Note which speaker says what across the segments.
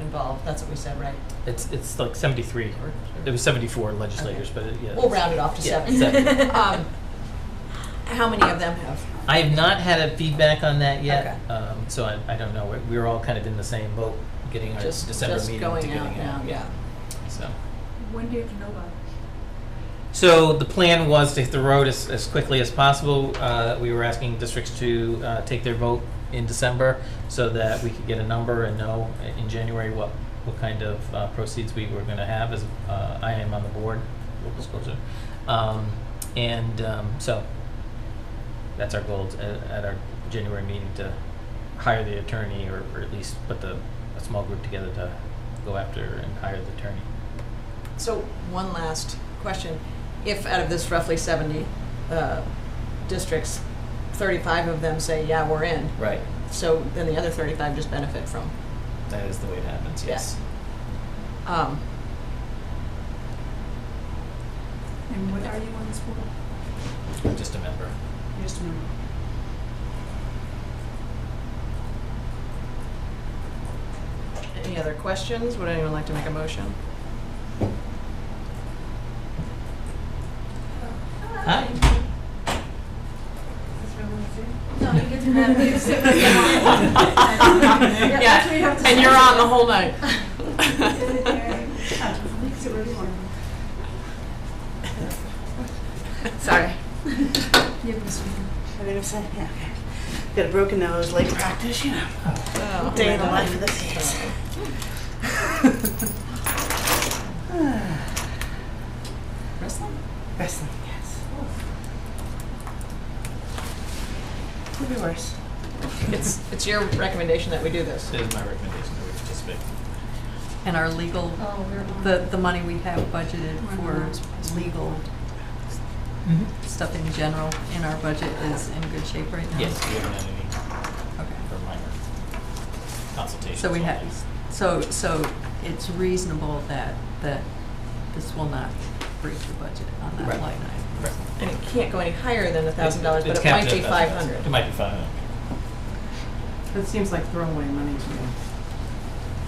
Speaker 1: involved, that's what we said, right?
Speaker 2: It's, it's like 73, or it was 74 legislators, but it- yeah.
Speaker 1: We'll round it off to
Speaker 2: Yeah,
Speaker 1: seven.
Speaker 2: seven.
Speaker 1: Um, How many of them have?
Speaker 2: I have not had a feedback on that yet,
Speaker 1: Okay.
Speaker 2: um, so I, I don't know. We're- We're all kind of in the same boat, getting our
Speaker 1: Just,
Speaker 2: December
Speaker 1: just
Speaker 2: meeting to
Speaker 1: going
Speaker 2: getting
Speaker 1: out now,
Speaker 2: out.
Speaker 1: yeah.
Speaker 2: So,
Speaker 3: When do you have to know by?
Speaker 2: so the plan was to hit the road as, as quickly as possible. Uh, We were asking districts to uh, take their vote in December so that we could get a number and know in January what, what kind of uh, proceeds we were going to have as uh, I am on the board, local school zone. Um, And um, so that's our goal t- at at our January meeting to hire the attorney or or at least put the, a small group together to go after and hire the attorney.
Speaker 1: So, one last question. If out of this roughly 70 uh, districts, 35 of them say, yeah, we're in,
Speaker 2: Right.
Speaker 1: so then the other 35 just benefit from.
Speaker 2: That is the way it happens,
Speaker 1: Yeah. yes. um,
Speaker 3: And what are you on this board?
Speaker 2: I'm just a member.
Speaker 3: Just a member.
Speaker 1: Any other questions? Would anyone like to make a motion?
Speaker 2: Hi.
Speaker 4: No, you get to have it.
Speaker 3: that's what you have to
Speaker 1: and
Speaker 3: say.
Speaker 1: you're on the whole night.
Speaker 3: So where do you want them?
Speaker 1: Sorry.
Speaker 3: You have this one.
Speaker 5: I think it's, yeah, okay. Got a broken nose, late practice, you know. Day in the life of the theater.
Speaker 1: Wrestling?
Speaker 5: Wrestling, yes. Could be worse.
Speaker 1: It's, it's your recommendation that we do this.
Speaker 2: That is my recommendation that we participate.
Speaker 6: And our legal,
Speaker 3: Oh, we're on.
Speaker 6: the, the money we have budgeted
Speaker 3: We're not
Speaker 6: for
Speaker 3: supposed to.
Speaker 6: legal
Speaker 2: Mm-hmm.
Speaker 6: stuff in general in our budget is in good shape right now?
Speaker 2: Yes, we haven't had
Speaker 6: Okay.
Speaker 2: any for minor consultations.
Speaker 6: So we
Speaker 2: on
Speaker 6: have,
Speaker 2: these.
Speaker 6: so, so it's reasonable that, that this will not breach the budget on
Speaker 2: Right.
Speaker 6: that line item.
Speaker 2: Right.
Speaker 1: And it can't go any higher than a thousand dollars, but
Speaker 2: It's
Speaker 1: it might
Speaker 2: capped
Speaker 1: be
Speaker 2: at
Speaker 1: five
Speaker 2: 1,000.
Speaker 1: hundred.
Speaker 2: It might be five hundred.
Speaker 7: That seems like throwaway money to me,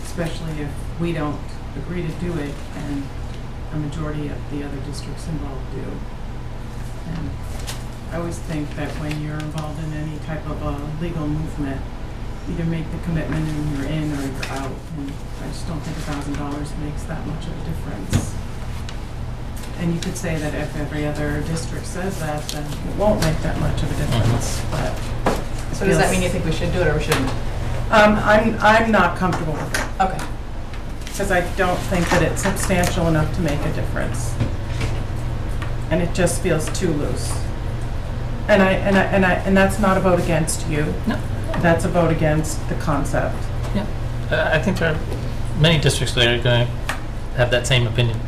Speaker 7: especially if we don't agree to do it and a majority of the other districts involved do. And I always think that when you're involved in any type of a legal movement, either make the commitment and you're in or you're out. And I just don't think a thousand dollars makes that much of a difference. And you could say that if every other district says that, then it won't make that much of a difference, but. it
Speaker 1: So does that
Speaker 7: feels-
Speaker 1: mean you think we should do it or we shouldn't?
Speaker 7: um, I'm, I'm not comfortable with it,
Speaker 1: Okay.
Speaker 7: because I don't think that it's substantial enough to make a difference. And it just feels too loose. And I, and I, and I, and that's not a vote against you.
Speaker 2: No.
Speaker 7: That's a vote against the concept.
Speaker 2: Uh, I think there are many districts that are going to have that same opinion.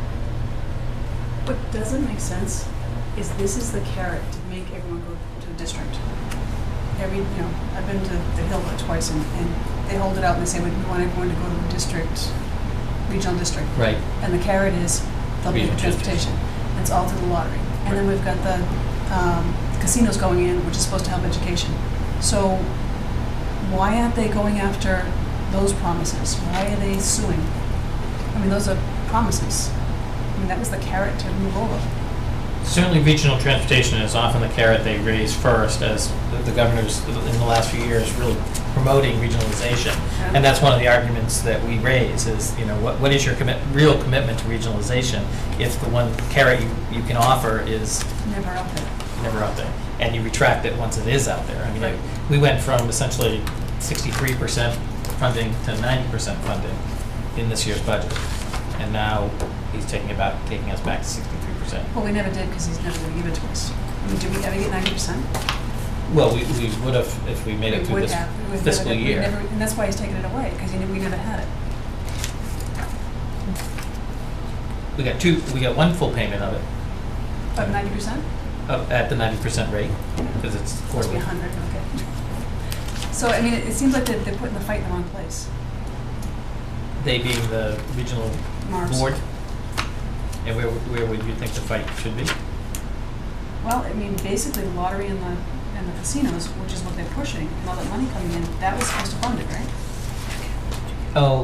Speaker 3: What doesn't make sense is this is the carrot to make everyone go to a district. Every, you know, I've been to the Hill twice and, and they hold it out and they say, we want everyone to go to a district, regional district.
Speaker 2: Right.
Speaker 3: And the carrot is they'll pay
Speaker 2: Regional
Speaker 3: for
Speaker 2: districts.
Speaker 3: transportation. It's all through the lottery. And then we've got the um, casinos going in, which is supposed to help education. So why aren't they going after those promises? Why are they suing? I mean, those are promises. I mean, that was the carrot to move over.
Speaker 2: Certainly, regional transportation is often the carrot they raise first, as the- the governor's, in the last few years, really promoting regionalization. And that's one of the arguments that we raise, is, you know, what, what is your commit, real commitment to regionalization if the one carrot you, you can offer is
Speaker 3: Never up there.
Speaker 2: never out there, and you retract it once it is out there. I mean,
Speaker 3: Right.
Speaker 2: we went from essentially 63% funding to 90% funding in this year's budget, and now he's taking about taking us back to 63%.
Speaker 3: Well, we never did because he's never going to give it to us. I mean, did we ever get ninety percent?
Speaker 2: Well, we, we would have if we made it through this fiscal year.
Speaker 3: And that's why he's taking it away, because we never had it.
Speaker 2: We got two, we got one full payment of it,
Speaker 3: But ninety percent?
Speaker 2: of, at the 90% rate, because it's
Speaker 3: Supposed to be
Speaker 2: quarterly.
Speaker 3: hundred, okay. So, I mean, it it seems like they're, they're putting the fight in the wrong place.
Speaker 2: They being the regional
Speaker 3: Mars.
Speaker 2: board. And where, where would you think the fight should be?
Speaker 3: Well, I mean, basically the lottery and the, and the casinos, which is what they're pushing, and all that money coming in, that was supposed to fund it, right?
Speaker 2: Oh,